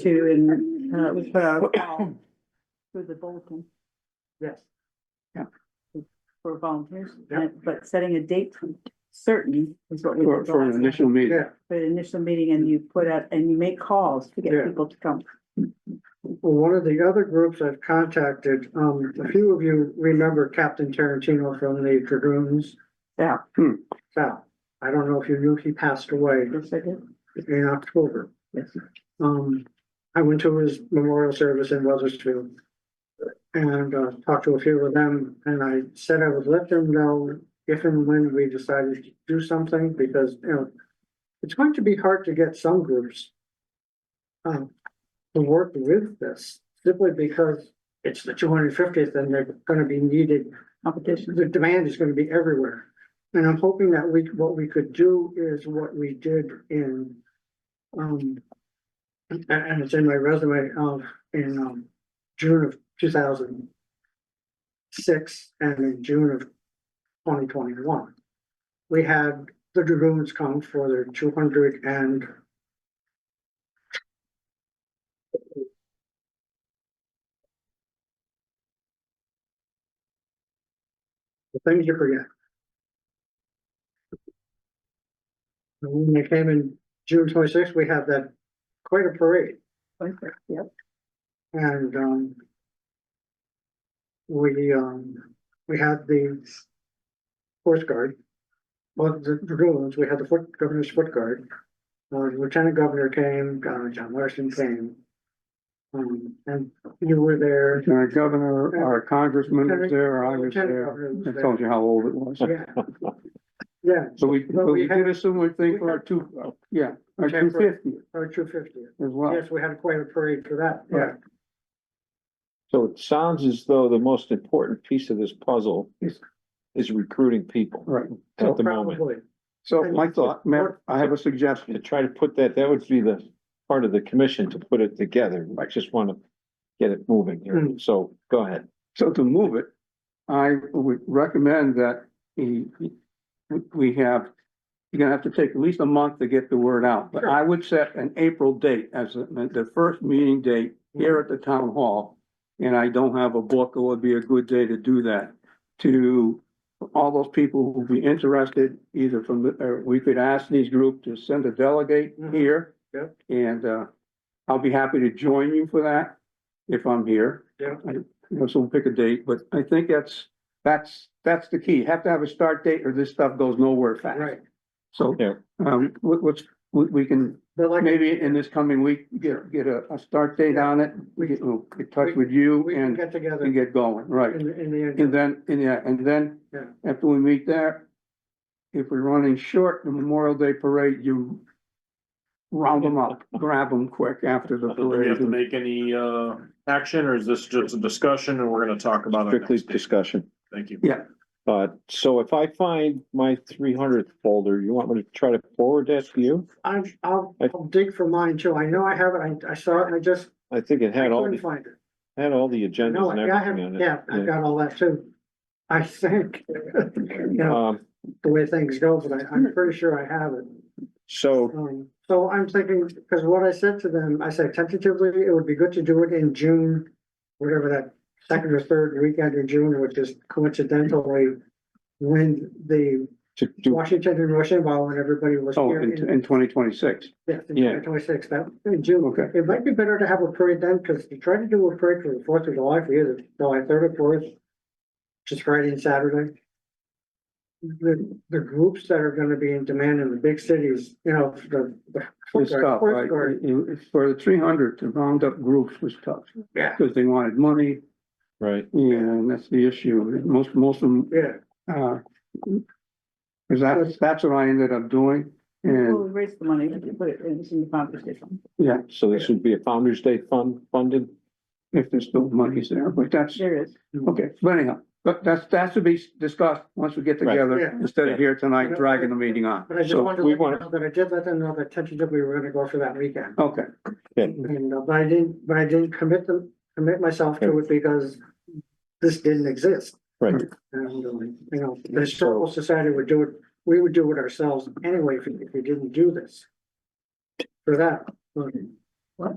to in, uh, with, uh, through the bulletin Yes. for volunteers, Yeah. but setting a date certain is what we. For, did for an last time. initial meeting. Yeah, For the initial meeting and you put out, and you make calls to get Yeah. people to come. well, one of the other groups I've contacted, um, a few of you remember Captain Tarantino from the Dragoons. Yeah. Hmm. Sal, I don't know if you knew he passed away Yes, I did. in October. Yes. Um, I went to his memorial service in Weathersfield. And, uh, talked to a few of them, and I said I would let them know if and when we decided to do something, because, you know. It's going to be hard to get some groups. Um, to work with this, simply because it's the two hundred fiftieth and they're gonna be needed Competition. the demand is gonna be everywhere. And I'm hoping that we, what we could do is what we did in, um, and, and it's in my resume of, in, um, June of two thousand six and in June of twenty twenty-one. We had the dragoons come for their two hundred and the things you forget. And When they came in June twenty-sixth, we had that, quite a parade. Yep. And, um, we, um, we had the Force Guard, well, the dragoons, we had the foot, governor's foot guard. Uh, Lieutenant Governor came, uh, John Larson came. Um, and you were there. Our governor, our congressman was there, I was Lieutenant there. Governor was I there. told you how old it was. Yeah. Yeah, So we, Well, but we we did a similar thing for our two, uh, yeah, our Okay, two for- fifty as our two fiftieth. well. Yes, we had quite a parade for that, yeah. Right. So it sounds as though the most important piece of this puzzle Yes. is recruiting people Right. at the moment. Probably. So my thought, Matt, I have a To suggestion. try to put that, that would be the part of the commission to put it together. I just want to get it moving here. Mm. So go ahead. So to move it, I would recommend that he, we have, you're gonna have to take at least a month to get the word out. But Sure. I would set an April date as the, the first meeting date here at the town hall. And I don't have a book, it would be a good day to do that. To all those people who'll be interested, either from, the- or we could ask these groups to send a delegate Mhm. here. Yep. And, uh, I'll be happy to join you for that if I'm here. Yeah. I- You know, so we'll pick a date, but I think that's, that's, that's the key. Have to have a start date or this stuff goes nowhere fast. Right, So, Yeah. um, what, what's, we, we can, but like, maybe in this coming week, get, get a, a start date on it. We get, we'll get in touch with you we can and, get together and in, get going, right? the- in the, And end. then, and yeah, and then Yeah. after we meet there, if we're running short, the Memorial Day Parade, you round them up, grab them quick after the Do we parade. have to make any uh action or is this just a discussion and we're gonna talk about it? Strictly next day? discussion. Thank you. Uh, so if I find my three hundredth folder, you want me to try to forward that to you? I'm, I'll, I'll dig for mine too, I know I have it, I, I saw it, and I just I think it had all, couldn't the find it. had all the No, agendas and I have, everything on it. yeah, I've got all that too. I think, you know, Um, the way things go, but I, Hmm. I'm pretty sure I have it. so Um, so I'm thinking, because what I said to them, I said tentatively, it would be good to do it in June, whatever that second or third weekend in June, which is coincidentally when the to do, Washington and Rochambeau and everybody was Oh, here in, in, in twenty twenty-six, yeah, yeah. in twenty-six, that, in June. okay. It might be better to have a parade then, because you try to do a parade for the Fourth of July for either July third or fourth, just Friday and Saturday. The, the groups that are gonna be in demand in the big cities, you know, the, the. It's tough, Fourth right? Guard, You- you- For the three hundred to round up groups was tough, Yeah, because they wanted money, Right. and that's the issue. Most, most of them, yeah, uh, because that's, that's what I ended up doing, We'll and, raise the money to put it in in the competition. yeah, So this would be a Founder's Day fund funded? if there's still money's there, but that's, There is. okay, but anyhow. But that's, that's to be discussed once we get Right. together, Yeah. instead of here tonight dragging the meeting on. but I just So, wanted to we let you want- know that I did let them know that tentatively we were gonna go for that weekend. Okay, And, uh, but I didn't, but I didn't commit them, commit myself to it because this didn't exist. Right. And, um, you know, the historical society would do it, we would do it ourselves anyway if, we- if we didn't do this. For that, but